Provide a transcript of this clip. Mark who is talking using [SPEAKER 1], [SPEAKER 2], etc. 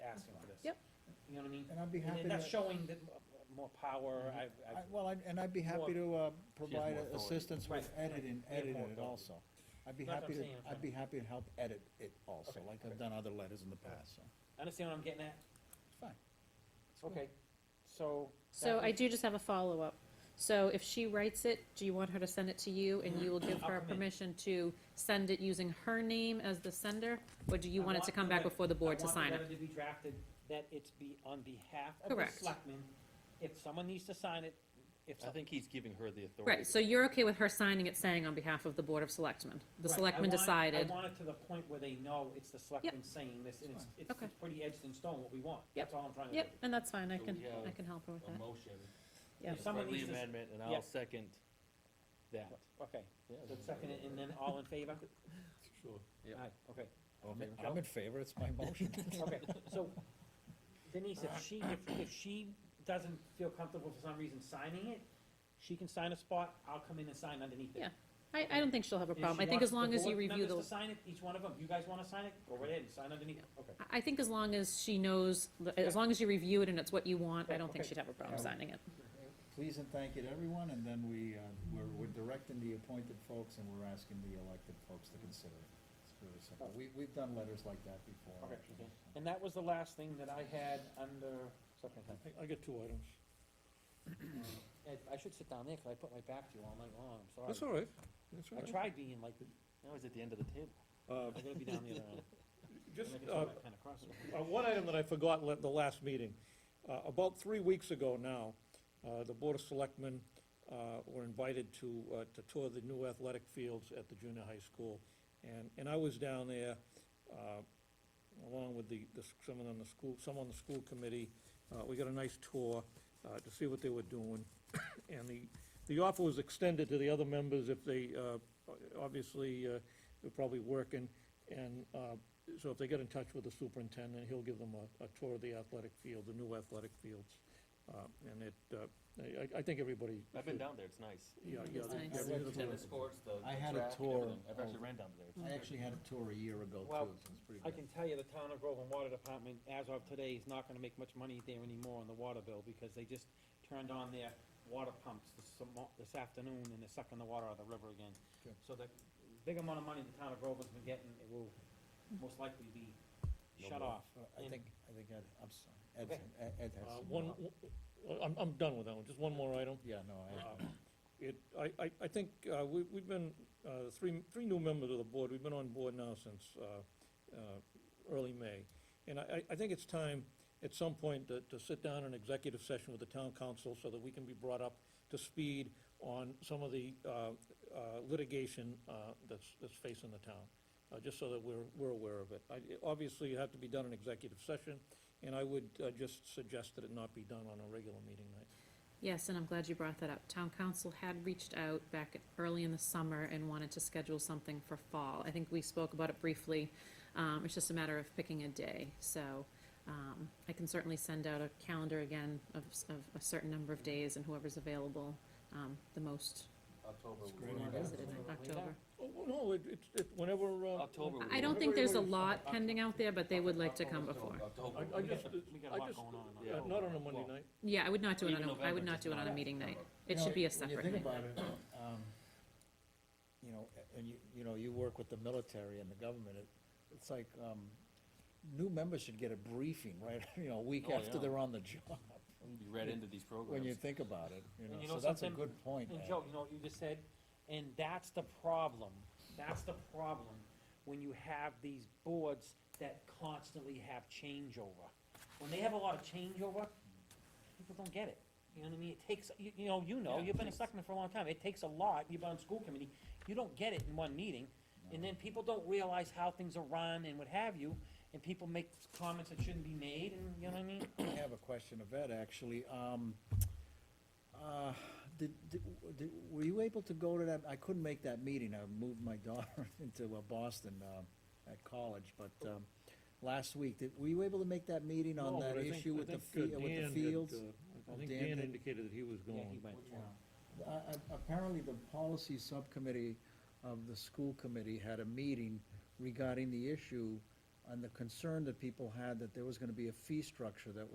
[SPEAKER 1] you know what I mean?
[SPEAKER 2] And I'd be
[SPEAKER 1] And
[SPEAKER 2] happy
[SPEAKER 1] then that's
[SPEAKER 2] to,
[SPEAKER 1] showing that m- more power,
[SPEAKER 2] Mhm.
[SPEAKER 1] I've,
[SPEAKER 2] I-
[SPEAKER 1] I've,
[SPEAKER 2] well, I'd- and I'd be happy to uh, provide
[SPEAKER 3] more authority.
[SPEAKER 2] assistance with
[SPEAKER 1] Right.
[SPEAKER 2] editing,
[SPEAKER 1] have more
[SPEAKER 2] editing it
[SPEAKER 1] authority.
[SPEAKER 2] also. I'd be
[SPEAKER 1] That's what
[SPEAKER 2] happy
[SPEAKER 1] I'm
[SPEAKER 2] to,
[SPEAKER 1] saying, I'm
[SPEAKER 2] I'd
[SPEAKER 1] trying-
[SPEAKER 2] be happy to help edit it also,
[SPEAKER 1] Okay,
[SPEAKER 2] like
[SPEAKER 1] okay.
[SPEAKER 2] I've done other letters in the past, so,
[SPEAKER 1] understand what I'm getting at?
[SPEAKER 2] it's fine. It's good.
[SPEAKER 1] Okay, so.
[SPEAKER 4] So
[SPEAKER 1] that
[SPEAKER 4] I
[SPEAKER 1] is-
[SPEAKER 4] do just have a follow-up. So if she writes it, do you want her to send it to you and you will give
[SPEAKER 1] I'll
[SPEAKER 4] her
[SPEAKER 1] come in.
[SPEAKER 4] permission to send it using her name as the sender? Or do you
[SPEAKER 1] I
[SPEAKER 4] want it to
[SPEAKER 1] want
[SPEAKER 4] come back
[SPEAKER 1] the-
[SPEAKER 4] before the board to sign
[SPEAKER 1] I
[SPEAKER 4] it?
[SPEAKER 1] want the letter to be drafted, that it's be on behalf of the
[SPEAKER 4] Correct.
[SPEAKER 1] selectmen. If someone needs to sign it, if.
[SPEAKER 3] I
[SPEAKER 1] some-
[SPEAKER 3] think he's giving her the authority.
[SPEAKER 4] Right, so you're okay with her signing it saying on behalf of the Board of Selectmen? The
[SPEAKER 1] Right, I
[SPEAKER 4] selectmen
[SPEAKER 1] want it-
[SPEAKER 4] decided.
[SPEAKER 1] I want it to the point where they know it's the selectmen saying this, and it's,
[SPEAKER 2] Fine.
[SPEAKER 1] it's
[SPEAKER 4] Okay.
[SPEAKER 1] it's pretty edged in stone what we want.
[SPEAKER 4] Yep.
[SPEAKER 1] That's all I'm trying to do.
[SPEAKER 4] Yep, and that's fine, I
[SPEAKER 3] So
[SPEAKER 4] can,
[SPEAKER 3] we have
[SPEAKER 4] I can help her with
[SPEAKER 3] A
[SPEAKER 4] that.
[SPEAKER 3] motion.
[SPEAKER 4] Yeah.
[SPEAKER 3] It's
[SPEAKER 1] Someone
[SPEAKER 3] friendly
[SPEAKER 1] needs to s-
[SPEAKER 3] amendment, and
[SPEAKER 1] yeah.
[SPEAKER 3] I'll second that.
[SPEAKER 1] Okay,
[SPEAKER 3] Yeah,
[SPEAKER 1] so second, it, and then all in favor?
[SPEAKER 3] Sure.
[SPEAKER 1] Aye, okay.
[SPEAKER 2] I'm in-
[SPEAKER 3] favor?
[SPEAKER 2] I'm in favor, it's my motion.
[SPEAKER 1] Okay, so Denise, if she, if, if she doesn't feel comfortable for some reason signing it, she can sign a spot, I'll come in and sign underneath it.
[SPEAKER 4] Yeah, I, I don't think she'll have a problem. I think as long as you review
[SPEAKER 1] the
[SPEAKER 4] the,
[SPEAKER 1] board members to sign it, each one of them, you guys wanna sign it, go right ahead and sign underneath, okay.
[SPEAKER 4] I- I think as long as she knows,
[SPEAKER 1] Yeah.
[SPEAKER 4] as long as you review it and it's what you want, I
[SPEAKER 1] Yeah,
[SPEAKER 4] don't think
[SPEAKER 1] okay.
[SPEAKER 4] she'd have a problem
[SPEAKER 2] Yeah.
[SPEAKER 4] signing it.
[SPEAKER 2] Please and thank you to everyone, and then we, uh, we're, we're directing the appointed folks and we're asking the elected folks to consider it. It's really simple. We, we've done letters like that before.
[SPEAKER 1] Okay.
[SPEAKER 2] actually.
[SPEAKER 1] And that was the last thing that I had under, second time.
[SPEAKER 5] I got two items.
[SPEAKER 1] Ed, I should sit down there, cause I put my back to you all night long, I'm sorry.
[SPEAKER 5] That's all right, that's all
[SPEAKER 1] I
[SPEAKER 5] right.
[SPEAKER 1] tried being like,
[SPEAKER 3] Now he's at the end of the table.
[SPEAKER 5] Uh,
[SPEAKER 1] I'm gonna be down the other end.
[SPEAKER 5] Just,
[SPEAKER 1] I'm gonna
[SPEAKER 5] uh,
[SPEAKER 1] turn that kinda cross.
[SPEAKER 5] uh, one item that I forgot at the last meeting, uh, about three weeks ago now, uh, the Board of Selectmen, uh, were invited to, uh, to tour the new athletic fields at the junior high school. And, and I was down there, uh, along with the, the, some of them, the school, some on the school committee. Uh, we got a nice tour, uh, to see what they were doing. And the, the offer was extended to the other members if they, uh, obviously, uh, they're probably working. And, uh, so if they get in touch with the superintendent, he'll give them a, a tour of the athletic field, the new athletic fields. Uh, and it, uh, I- I, I think everybody.
[SPEAKER 3] I've been
[SPEAKER 5] should-
[SPEAKER 3] down there, it's nice.
[SPEAKER 5] Yeah, yeah.
[SPEAKER 4] It's nice.
[SPEAKER 5] they- yeah, they did a
[SPEAKER 3] Tennis courts, the
[SPEAKER 2] I
[SPEAKER 3] the
[SPEAKER 2] had a
[SPEAKER 3] track and
[SPEAKER 2] tour
[SPEAKER 3] everything. I've actually
[SPEAKER 2] of-
[SPEAKER 3] ran down there.
[SPEAKER 2] I actually had a tour a year ago
[SPEAKER 1] Well,
[SPEAKER 2] too, so it's pretty
[SPEAKER 1] I
[SPEAKER 2] good.
[SPEAKER 1] can tell you the town of Groveland Water Department, as of today, is not gonna make much money there anymore on the water bill, because they just turned on their water pumps this, mo- this afternoon, and they're sucking the water out of the river again.
[SPEAKER 2] Good.
[SPEAKER 1] So the big amount of money the town of Groveland's been getting, it will most likely be shut
[SPEAKER 3] No more.
[SPEAKER 1] off.
[SPEAKER 2] Uh, I
[SPEAKER 1] And-
[SPEAKER 2] think, I think Ed, I'm sorry, Ed,
[SPEAKER 1] Okay.
[SPEAKER 2] Ed Ed has
[SPEAKER 5] Uh,
[SPEAKER 2] some
[SPEAKER 5] One,
[SPEAKER 2] more.
[SPEAKER 5] one- I'm, I'm done with that one, just one more item.
[SPEAKER 2] Yeah, no, I,
[SPEAKER 5] um, It, I, I, I think, uh, we, we've been, uh, three, three new members of the board, we've been on board now since, uh, uh, early May. And I, I- I think it's time, at some point, to, to sit down in executive session with the town council so that we can be brought up to speed on some of the, uh, uh, litigation, uh, that's, that's facing the town, uh, just so that we're, we're aware of it. I, it- obviously, it had to be done in executive session, and I would, uh, just suggest that it not be done on a regular meeting night.
[SPEAKER 4] Yes, and I'm glad you brought that up. Town council had reached out back early in the summer and wanted to schedule something for fall. I think we spoke about it briefly. Um, it's just a matter of picking a day, so, um, I can certainly send out a calendar again of, s- of a certain number of days and whoever's available, um, the most
[SPEAKER 3] October.
[SPEAKER 2] It's
[SPEAKER 3] we
[SPEAKER 2] great
[SPEAKER 3] were-
[SPEAKER 2] idea.
[SPEAKER 4] visited in October.
[SPEAKER 5] Oh, well, no, it, it- it, whenever, uh.
[SPEAKER 3] October. we
[SPEAKER 4] I
[SPEAKER 3] were-
[SPEAKER 4] don't think there's a lot pending out there, but they would like to come before.
[SPEAKER 3] October.
[SPEAKER 5] I,
[SPEAKER 3] we
[SPEAKER 5] I
[SPEAKER 3] were-
[SPEAKER 5] just,
[SPEAKER 1] We got a
[SPEAKER 5] I
[SPEAKER 1] lot
[SPEAKER 5] just-
[SPEAKER 1] going on. in
[SPEAKER 3] yeah,
[SPEAKER 5] uh,
[SPEAKER 1] October.
[SPEAKER 5] not on a Monday
[SPEAKER 3] Well,
[SPEAKER 5] night.
[SPEAKER 4] Yeah, I would not do it
[SPEAKER 3] Even
[SPEAKER 4] on a, I
[SPEAKER 3] November,
[SPEAKER 4] would not
[SPEAKER 3] just
[SPEAKER 4] do it on a
[SPEAKER 3] not
[SPEAKER 4] meeting night.
[SPEAKER 3] October.
[SPEAKER 4] It
[SPEAKER 2] You
[SPEAKER 4] should
[SPEAKER 2] know,
[SPEAKER 4] be a separate
[SPEAKER 2] When you
[SPEAKER 4] night.
[SPEAKER 2] think about it, um, you know, a- and you, you know, you work with the military and the government, it, it's like, um, new members should get a briefing, right, you know, a week
[SPEAKER 3] Oh,
[SPEAKER 2] after
[SPEAKER 3] yeah.
[SPEAKER 2] they're on the job,
[SPEAKER 3] we'd Be read into these programs.
[SPEAKER 2] when you think about it, you
[SPEAKER 1] And you
[SPEAKER 2] know,
[SPEAKER 1] know
[SPEAKER 2] so that's a
[SPEAKER 1] something?
[SPEAKER 2] good point,
[SPEAKER 1] And
[SPEAKER 2] Ed.
[SPEAKER 1] Joe, you know what you just said? And that's the problem. That's the problem when you have these boards that constantly have changeover. When they have a lot of changeover, people don't get it. You know what I mean? It takes, you, you know, you know,
[SPEAKER 3] Yeah,
[SPEAKER 1] you've been a
[SPEAKER 3] it's-
[SPEAKER 1] selectman for a long time. It takes a lot. You've been on school committee. You don't get it in one meeting. And then people don't realize how things are run and what have you. And people make comments that shouldn't be made and, you know what I mean?
[SPEAKER 2] I have a question of Ed, actually. Um, uh, Did, did, did- were you able to go to that, I couldn't make that meeting, I moved my daughter into uh, Boston um, at college, but um, last week, did, were you able to make that meeting on
[SPEAKER 5] No,
[SPEAKER 2] that
[SPEAKER 5] but I think-
[SPEAKER 2] issue
[SPEAKER 5] I
[SPEAKER 2] with the,
[SPEAKER 5] think,
[SPEAKER 2] fe-
[SPEAKER 5] uh,
[SPEAKER 2] with the
[SPEAKER 5] Dan had,
[SPEAKER 2] fields?
[SPEAKER 5] uh,
[SPEAKER 2] Oh,
[SPEAKER 5] I think
[SPEAKER 2] Dan
[SPEAKER 5] Dan
[SPEAKER 2] had-
[SPEAKER 5] indicated that he was
[SPEAKER 1] Yeah, he
[SPEAKER 5] going.
[SPEAKER 1] went.
[SPEAKER 2] Uh, uh, Apparently, the policy subcommittee of the school committee had a meeting regarding the issue and the concern that people had that there was gonna be a fee structure that